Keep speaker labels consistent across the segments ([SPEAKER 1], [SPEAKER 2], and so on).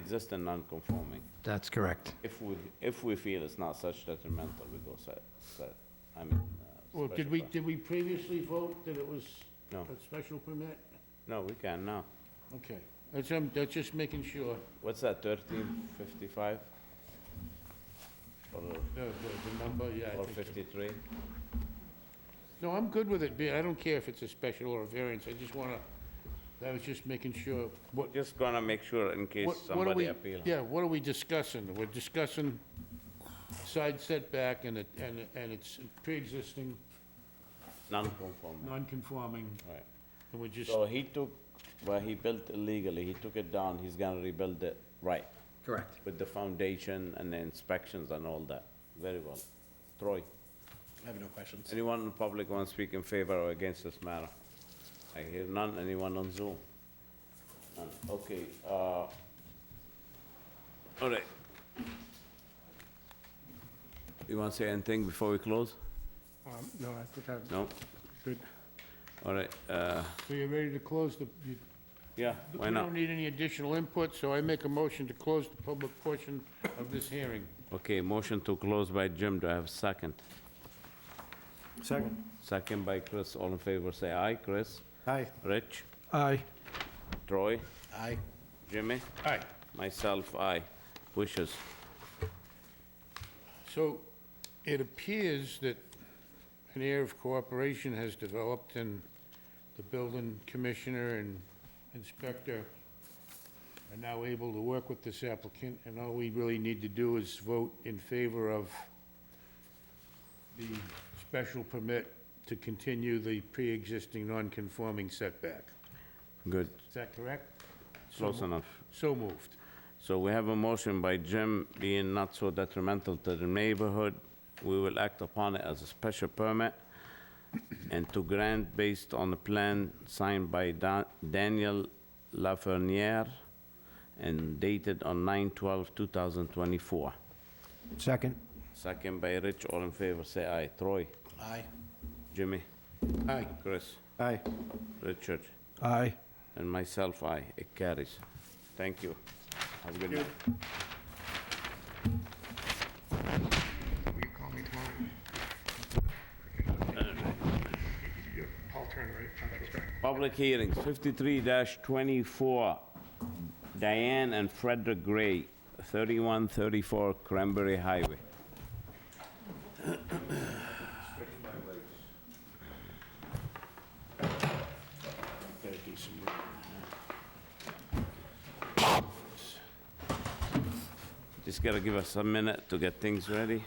[SPEAKER 1] existing non-conforming.
[SPEAKER 2] That's correct.
[SPEAKER 1] If we, if we feel it's not such detrimental, we go set, set, I mean. uh,
[SPEAKER 3] Well, did
[SPEAKER 1] special
[SPEAKER 3] we,
[SPEAKER 1] per-
[SPEAKER 3] did we previously vote that it was
[SPEAKER 1] No.
[SPEAKER 3] a special permit?
[SPEAKER 1] No, we can now.
[SPEAKER 3] Okay, that's, I'm, that's just making sure, uh,
[SPEAKER 1] What's that, thirteen fifty-five? Or,
[SPEAKER 3] the, the- the number, yeah. I
[SPEAKER 1] or
[SPEAKER 3] think so.
[SPEAKER 1] fifty-three?
[SPEAKER 3] No, I'm good with it being, I don't care if it's a special or a variance, I just wanna, I was just making sure, what,
[SPEAKER 1] Just gonna make sure in case
[SPEAKER 3] what, what are
[SPEAKER 1] somebody
[SPEAKER 3] we,
[SPEAKER 1] appeal.
[SPEAKER 3] yeah, what are we discussing? We're discussing side setback and it, and, it- and it's pre-existing,
[SPEAKER 1] Non-conforming,
[SPEAKER 3] non-conforming,
[SPEAKER 1] right.
[SPEAKER 3] and we're just,
[SPEAKER 1] So he took, where he built illegally, he took it down, he's gonna rebuild it, right,
[SPEAKER 2] Correct.
[SPEAKER 1] with the foundation and the inspections and all that. Very well. Troy?
[SPEAKER 4] I have no questions.
[SPEAKER 1] Anyone in the public want to speak in favor or against this matter? I hear none, anyone on Zoom? None. Okay, uh, all right. You want to say anything before we close?
[SPEAKER 5] Um, No, I think I'm
[SPEAKER 1] No?
[SPEAKER 5] good.
[SPEAKER 1] All right, uh,
[SPEAKER 3] so you're ready to close the, you-
[SPEAKER 1] yeah, why
[SPEAKER 3] We
[SPEAKER 1] not?
[SPEAKER 3] don't need any additional input, so I make a motion to close the public portion of this hearing.
[SPEAKER 1] Okay, motion to close by Jim, do I have a second?
[SPEAKER 5] Second.
[SPEAKER 1] Second by Chris, all in favor, say aye, Chris?
[SPEAKER 5] Aye.
[SPEAKER 1] Rich?
[SPEAKER 2] Aye.
[SPEAKER 1] Troy?
[SPEAKER 4] Aye.
[SPEAKER 1] Jimmy?
[SPEAKER 3] Aye.
[SPEAKER 1] Myself, aye. Wishes?
[SPEAKER 3] So it appears that an air of cooperation has developed and the building commissioner and inspector are now able to work with this applicant, and all we really need to do is vote in favor of the special permit to continue the pre-existing non-conforming setback.
[SPEAKER 1] Good,
[SPEAKER 3] Is that correct? So
[SPEAKER 1] close
[SPEAKER 3] mo-
[SPEAKER 1] enough.
[SPEAKER 3] So moved.
[SPEAKER 1] So we have a motion by Jim, being not so detrimental to the neighborhood, we will act upon it as a special permit and to grant based on the plan signed by Da- Daniel Lafreniere and dated on 9/12/2024.
[SPEAKER 2] Second.
[SPEAKER 1] Second by Rich, all in favor, say aye. Troy,
[SPEAKER 4] Aye.
[SPEAKER 1] Jimmy,
[SPEAKER 3] Aye.
[SPEAKER 1] Chris,
[SPEAKER 5] Aye.
[SPEAKER 1] Richard,
[SPEAKER 2] Aye.
[SPEAKER 1] and myself, aye. It carries. Thank you. Have a good night.
[SPEAKER 6] Will you call me tomorrow? Paul Turner, right? That's right.
[SPEAKER 1] Public hearings, 53-24, Diane and Frederick Gray, 3134 Cranberry Highway.
[SPEAKER 3] Gotta do some reading.
[SPEAKER 1] Just gotta give us a minute to get things ready.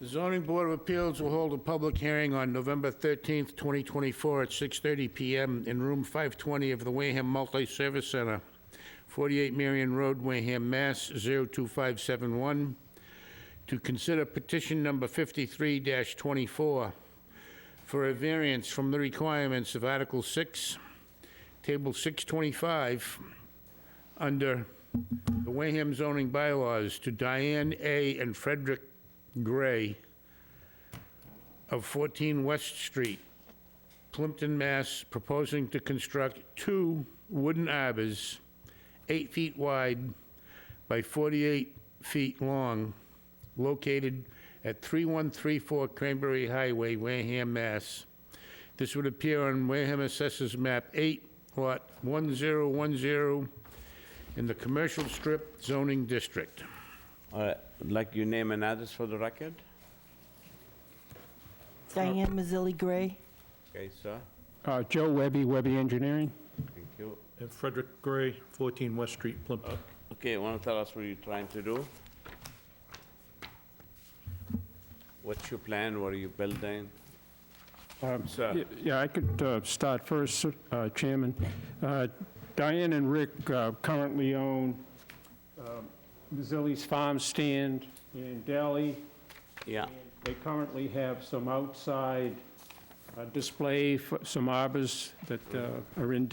[SPEAKER 3] The zoning board of appeals will hold a public hearing on November 13th, 2024 at 6:30 PM in room 520 of the Wareham Multi-Service Center, 48 Marion Road, Wareham, Mass. 02571, to consider petition number 53-24 for a variance from the requirements of Article 6, Table 625, under the Wareham zoning bylaws to Diane A. and Frederick Gray of 14 West Street, Plimpton, Mass., proposing to construct two wooden arbors, eight feet wide by 48 feet long, located at 3134 Cranberry Highway, Wareham, Mass. This would appear on Wareham Assessors Map 8, Lot 1010, in the Commercial Strip zoning district.
[SPEAKER 1] All right, would like you name and address for the record?
[SPEAKER 7] Diane Mazzilli Gray.
[SPEAKER 1] Okay, sir,
[SPEAKER 5] Uh, Joe Webby, Webby Engineering.
[SPEAKER 1] thank you.
[SPEAKER 8] And Frederick Gray, 14 West Street, Plimpton.
[SPEAKER 1] Okay, wanna tell us what you're trying to do? What's your plan, what are you building?
[SPEAKER 5] Um,
[SPEAKER 1] Sir.
[SPEAKER 5] y- Yeah, I could uh, start first, uh, Chairman. Uh, Diane and Rick uh, currently own um, Mazzilli's Farm Stand in Delhi.
[SPEAKER 1] Yeah,
[SPEAKER 5] They currently have some outside uh, uh, display for some arbors that uh, are in